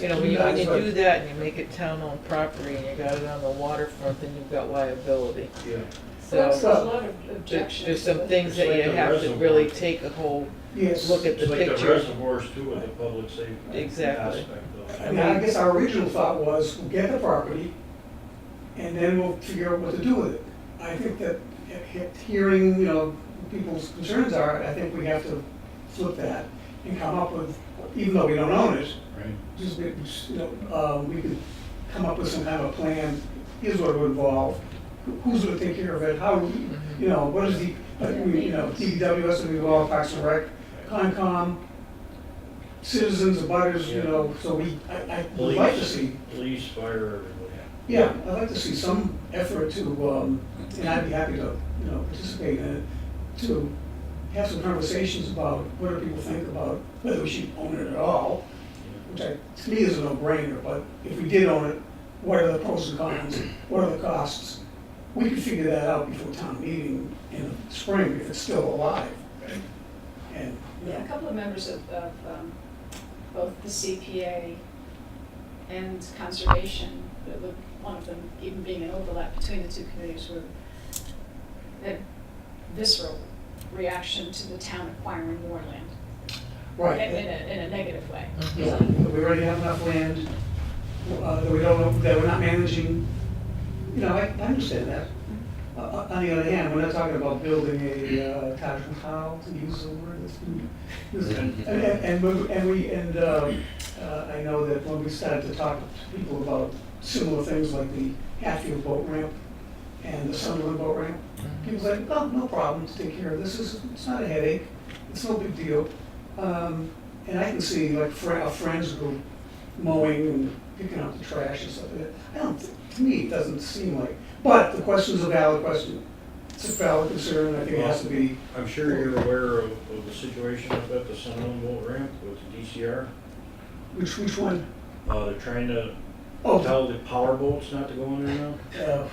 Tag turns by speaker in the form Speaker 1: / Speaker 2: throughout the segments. Speaker 1: You know, when you, when you do that and you make it town-owned property and you got it on the waterfront, then you've got liability.
Speaker 2: Yeah,
Speaker 3: There's a
Speaker 1: So
Speaker 3: lot of
Speaker 1: there-
Speaker 3: objections.
Speaker 1: there's
Speaker 3: to
Speaker 1: some
Speaker 3: it.
Speaker 1: things that you have to really take a whole
Speaker 4: Yes.
Speaker 1: look at the
Speaker 2: it's like the
Speaker 1: picture.
Speaker 2: reservoirs too with the public safety
Speaker 1: Exactly.
Speaker 2: aspect of
Speaker 4: I
Speaker 2: it.
Speaker 4: mean, I guess our original thought was, we'll get the property, and then we'll figure out what to do with it. I think that, he- he- hearing, you know, what people's concerns are, I think we have to flip that and come up with, even though we don't own it,
Speaker 2: Right.
Speaker 4: just, we- you know, uh, we could come up with some kind of plan, here's what it would involve, who- who's gonna take care of it, how, you know, what is the, I think we, you know, DPW has to be involved, Parks and Rec, Concom, citizens, abutters, you know, so we, I, I would like to see,
Speaker 2: Police, police, fire, everybody.
Speaker 4: yeah, I'd like to see some effort to, um, and I'd be happy to, you know, participate in it, to have some conversations about what do people think about whether we should own it at all, which I, to me is a no-brainer, but if we did own it, what are the pros and cons, what are the costs? We could figure that out before town meeting in the spring if it's still alive. And, you
Speaker 3: Yeah, a
Speaker 4: know,
Speaker 3: couple of members of, of um, both the CPA and conservation, the- the- one of them even being an overlap between the two committees, were that visceral reaction to the town acquiring more land, in
Speaker 4: right.
Speaker 3: in a, in a negative way.
Speaker 4: Yeah, that we already have enough land, uh, that we don't, that we're not managing, you know, I, I understand that. Uh, uh, On the other hand, we're not talking about building a uh, Taj Mahal, to use the word that's been used. And, and- and we- and we, and um, uh, I know that when we started to talk to people about similar things like the Hatfield boat ramp and the Sunderland boat ramp, people was like, oh, no problem to take care of, this is, it's not a headache, it's no big deal. Um, and I can see like fr- our friends go mowing and picking up the trash and stuff like that. I don't, thi- to me, it doesn't seem like, but the question's a valid question. It's a valid concern, I think it has to be,
Speaker 2: I'm sure you're aware of, of the situation up at the Sunland Boat Ramp with the DCR.
Speaker 4: which, which one?
Speaker 2: Uh, they're trying to
Speaker 4: Oh,
Speaker 2: tell the power boats not to go in there now.
Speaker 4: uh,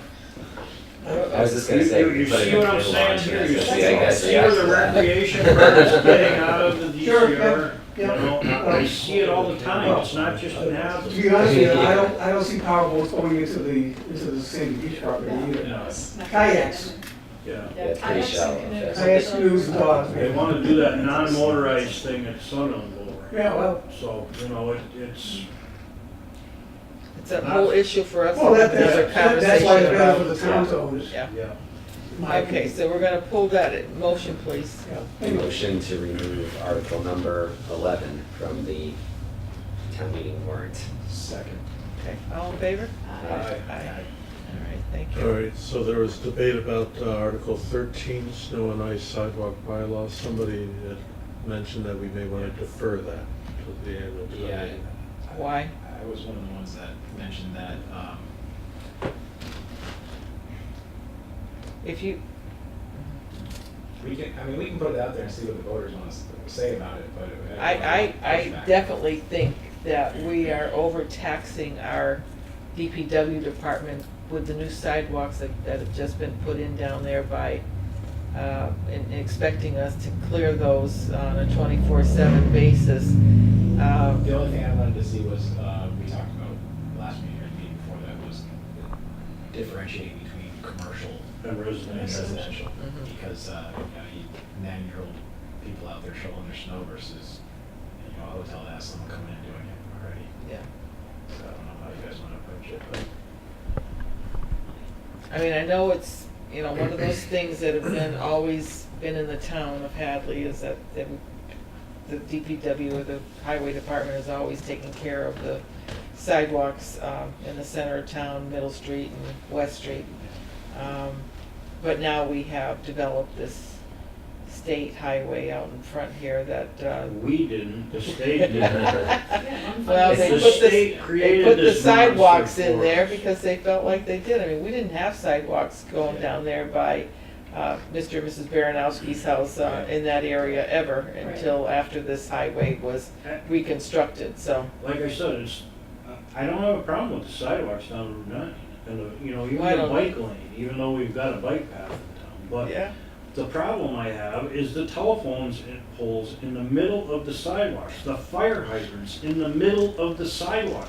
Speaker 5: I was just gonna
Speaker 2: You-
Speaker 5: say.
Speaker 2: You, you
Speaker 5: put it
Speaker 2: see what
Speaker 5: in
Speaker 2: I'm
Speaker 5: the
Speaker 2: saying
Speaker 5: launch,
Speaker 2: here?
Speaker 5: and
Speaker 2: You
Speaker 5: it's
Speaker 2: see you
Speaker 5: just- yeah, I guess
Speaker 2: see
Speaker 5: yes,
Speaker 2: where the
Speaker 5: that-
Speaker 2: recreation firms getting out of the
Speaker 4: Sure, yeah,
Speaker 2: DCR. You
Speaker 4: yeah.
Speaker 2: know, I see it all the time. It's not just an
Speaker 4: to
Speaker 2: habit.
Speaker 4: be honest with you, I don't, I don't see power boats going into the, into the Sandy Beach property either.
Speaker 2: Yeah,
Speaker 3: It's not-
Speaker 4: Kayaks.
Speaker 2: yeah.
Speaker 3: Yeah,
Speaker 5: Yeah, pretty
Speaker 3: kayaks
Speaker 5: shallow,
Speaker 3: and canoes. Uh,
Speaker 4: Kayaks, canoes, dogs.
Speaker 2: They want to do that non-motorized thing at Sunland Bowl.
Speaker 4: Yeah, well,
Speaker 2: So, you know, it, it's,
Speaker 1: It's a whole issue for us.
Speaker 4: well, that,
Speaker 1: There's a
Speaker 4: that's, that's why it's
Speaker 1: conversation
Speaker 4: better for the
Speaker 1: about.
Speaker 4: town to own it.
Speaker 1: Yeah.
Speaker 2: yeah.
Speaker 4: in my
Speaker 1: Okay,
Speaker 4: opinion.
Speaker 1: so we're gonna pull that, in motion please.
Speaker 4: Yeah.
Speaker 5: A motion to remove article number eleven from the town meeting warrant.
Speaker 2: Second.
Speaker 1: Okay, all in favor?
Speaker 3: Uh,
Speaker 1: Aye. All right, thank
Speaker 6: All
Speaker 1: you.
Speaker 6: right, so there was debate about uh, Article 13, snow and ice sidewalk bylaw. Somebody had mentioned that we may want to defer that to the annual town
Speaker 7: Yeah.
Speaker 6: meeting.
Speaker 1: Why?
Speaker 7: I was one of the ones that mentioned that, um,
Speaker 1: If you,
Speaker 7: we can, I mean, we can put it out there and see what the voters want us to say about it, but. don't
Speaker 1: I,
Speaker 7: wanna
Speaker 1: I,
Speaker 7: push
Speaker 1: I
Speaker 7: back.
Speaker 1: definitely think that we are overtaxing our DPW department with the new sidewalks that, that have just been put in down there by, uh, and expecting us to clear those on a twenty-four seven basis. Um,
Speaker 7: The only thing I wanted to see was, uh, we talked about last meeting or the meeting before that was differentiating between commercial
Speaker 2: And
Speaker 7: and
Speaker 2: residential.
Speaker 7: residential.
Speaker 1: Mhm.
Speaker 7: Because, uh, you know, you nine-year-old people out there shoveling their snow versus, you know, a hotel that has someone coming in and doing it already.
Speaker 1: Yeah,
Speaker 7: So I don't know how you guys wanna approach it, but.
Speaker 1: I mean, I know it's, you know, one of those things that have been, always been in the town of Hadley is that, that the DPW or the highway department is always taking care of the sidewalks, um, in the center of town, Middle Street and West Street. Um, but now we have developed this state highway out in front here that, uh,
Speaker 2: We didn't, the state didn't.
Speaker 3: yeah, I'm fine
Speaker 1: Well,
Speaker 3: with
Speaker 1: they
Speaker 2: The
Speaker 3: that.
Speaker 1: put the,
Speaker 2: state
Speaker 1: they
Speaker 2: created
Speaker 1: put the
Speaker 2: this monster
Speaker 1: sidewalks in
Speaker 2: for
Speaker 1: there
Speaker 2: us.
Speaker 1: because they felt like they did. I mean, we didn't have sidewalks going down there by uh, Mr. and Mrs. Baranowski's house uh, in that area ever
Speaker 3: Right.
Speaker 1: until after this highway was reconstructed, so.
Speaker 2: Like I said, it's, I don't have a problem with the sidewalks down Route nine. And, the- you know, even
Speaker 1: I
Speaker 2: the
Speaker 1: don't-
Speaker 2: bike lane, even though we've got a bike path in town. But
Speaker 1: Yeah,
Speaker 2: The problem I have is the telephones in- poles in the middle of the sidewalks, the fire hydrants in the middle of the sidewalks.